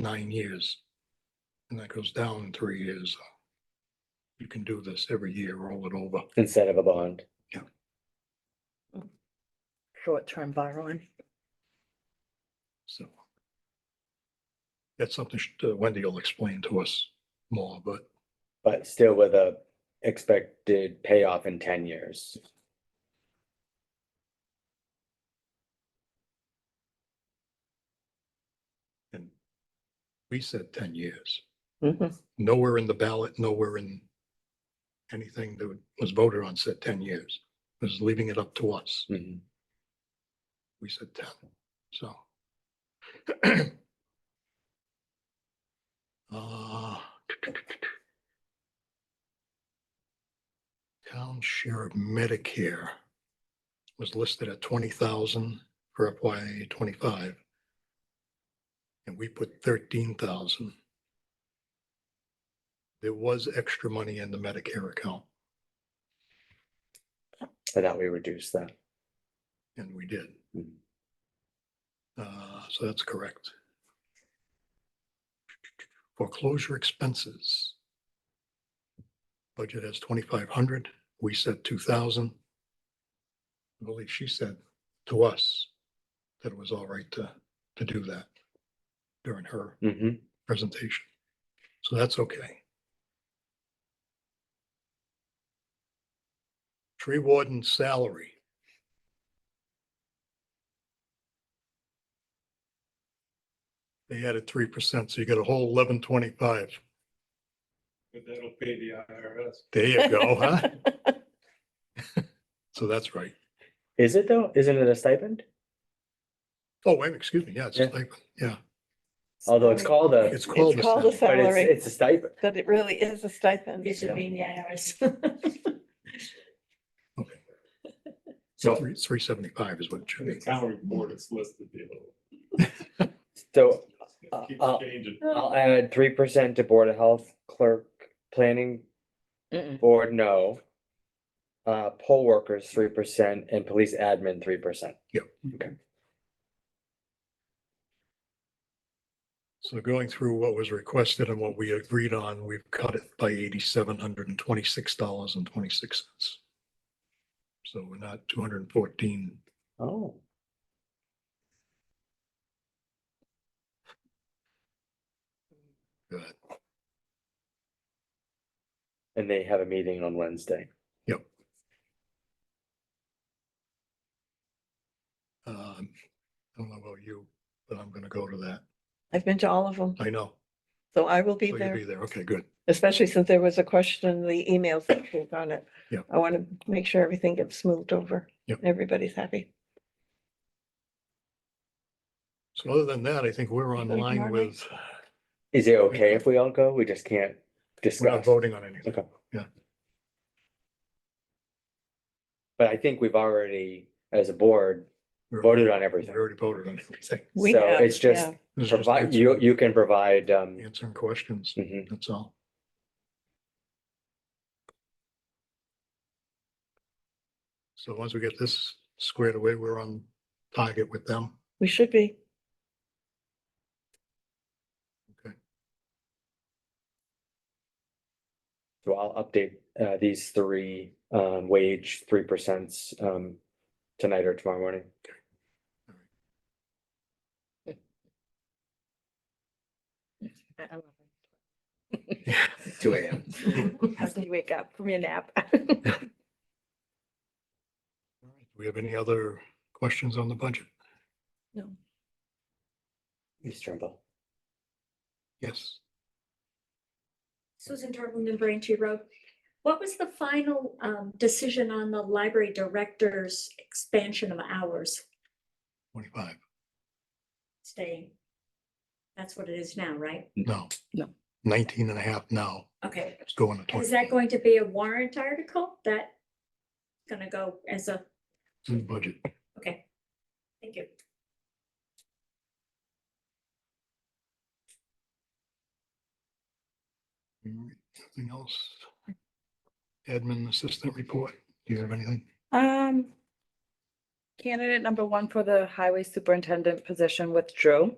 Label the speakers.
Speaker 1: nine years. And that goes down three years. You can do this every year, roll it over.
Speaker 2: instead of a bond.
Speaker 3: short-term borrowing.
Speaker 1: So. That's something sh- uh, Wendy will explain to us more, but
Speaker 2: But still with a expected payoff in ten years.
Speaker 1: we said ten years.
Speaker 2: Mm-hmm.
Speaker 3: Mhm.
Speaker 1: Nowhere in the ballot, nowhere in anything that was voted on said ten years. It was leaving it up to us.
Speaker 2: Mhm.
Speaker 1: We said ten, so. Uh, Town share of Medicare was listed at twenty thousand for FY twenty-five. And we put thirteen thousand. There was extra money in the Medicare account,
Speaker 2: So that we reduce that.
Speaker 1: and we did.
Speaker 2: Mhm.
Speaker 1: Uh, so that's correct. Foreclosure expenses. Budget has twenty-five hundred, we said two thousand. I believe she said to us that it was all right to, to do that during her
Speaker 2: Mhm.
Speaker 1: presentation. So that's okay. Tree warden salary. They added three percent, so you got a whole eleven twenty-five.
Speaker 4: But that'll pay the IRS.
Speaker 1: There you go, huh? So that's right.
Speaker 2: Is it though? Isn't it a stipend?
Speaker 1: Oh, wait, excuse me, yeah, it's
Speaker 2: Yeah.
Speaker 1: like, yeah,
Speaker 2: Although it's called a,
Speaker 1: it's called.
Speaker 3: It's called
Speaker 1: salary.
Speaker 2: but
Speaker 3: a
Speaker 2: it's,
Speaker 3: Salary.
Speaker 2: it's a stipend.
Speaker 3: But it really is a stipend.
Speaker 5: It should be in the IRS.
Speaker 1: Okay. So
Speaker 2: So,
Speaker 1: three, three seventy-five is what it should
Speaker 4: In the
Speaker 1: be.
Speaker 4: town report, it's listed there.
Speaker 2: so Uh,
Speaker 4: It keeps
Speaker 2: uh,
Speaker 4: changing.
Speaker 2: I'll add three percent to board of health clerk, planning
Speaker 3: Mm-mm.
Speaker 2: board, no. Uh, poll workers, three percent and police admin, three percent.
Speaker 1: So going through what was requested and what we agreed on, we've cut it by eighty-seven hundred and twenty-six dollars and twenty-six cents. So we're not two hundred and fourteen.
Speaker 2: Oh.
Speaker 1: Good.
Speaker 2: And they have a meeting on Wednesday.
Speaker 1: Um, I don't know about you, but I'm gonna go to that.
Speaker 3: I've been to all of them,
Speaker 1: I know.
Speaker 3: so I will be
Speaker 1: So Oh, You'll be
Speaker 3: there,
Speaker 1: there. Okay, good.
Speaker 3: especially since there was a question in the emails that was on it.
Speaker 1: Yeah.
Speaker 3: I want to make sure everything gets smoothed over.
Speaker 1: Yep.
Speaker 3: and Everybody's happy.
Speaker 1: So other than that, I think we're on
Speaker 3: Good
Speaker 1: line
Speaker 3: morning.
Speaker 1: with,
Speaker 2: Is it okay if we all go? We just can't
Speaker 1: we're not
Speaker 2: discuss,
Speaker 1: voting on anything.
Speaker 2: Okay.
Speaker 1: Yeah,
Speaker 2: but I think we've already, as a board,
Speaker 1: We're-
Speaker 2: voted on
Speaker 1: we
Speaker 2: everything.
Speaker 1: already voted on everything.
Speaker 3: We
Speaker 2: So
Speaker 3: have,
Speaker 2: it's just-
Speaker 3: yeah.
Speaker 1: This is just
Speaker 2: Provide, you,
Speaker 1: answering-
Speaker 2: you can provide, um,
Speaker 1: Answering questions,
Speaker 2: mhm.
Speaker 1: that's all. So once we get this squared away, we're on target with them.
Speaker 3: We should be.
Speaker 2: so I'll update, uh, these three, um, wage three percents, um, tonight or tomorrow morning. Two AM.
Speaker 5: How can you wake up from your nap?
Speaker 1: All right. Do we have any other questions on the budget?
Speaker 2: Ms. Trimble.
Speaker 1: Yes.
Speaker 5: Susan Dortmund and Braintree Road. What was the final um, decision on the library director's expansion of hours
Speaker 1: Twenty-five,
Speaker 5: staying? That's what it is now, right?
Speaker 1: no.
Speaker 3: No.
Speaker 1: Nineteen and a half now,
Speaker 5: Okay.
Speaker 1: it's going to
Speaker 5: Is that
Speaker 1: twenty,
Speaker 5: going to be a warrant article that gonna go as a,
Speaker 1: It's in the budget.
Speaker 5: okay. Thank you.
Speaker 1: All right. Nothing else? Admin assistant report, do you have anything?
Speaker 6: Um, candidate number one for the highway superintendent position withdrew.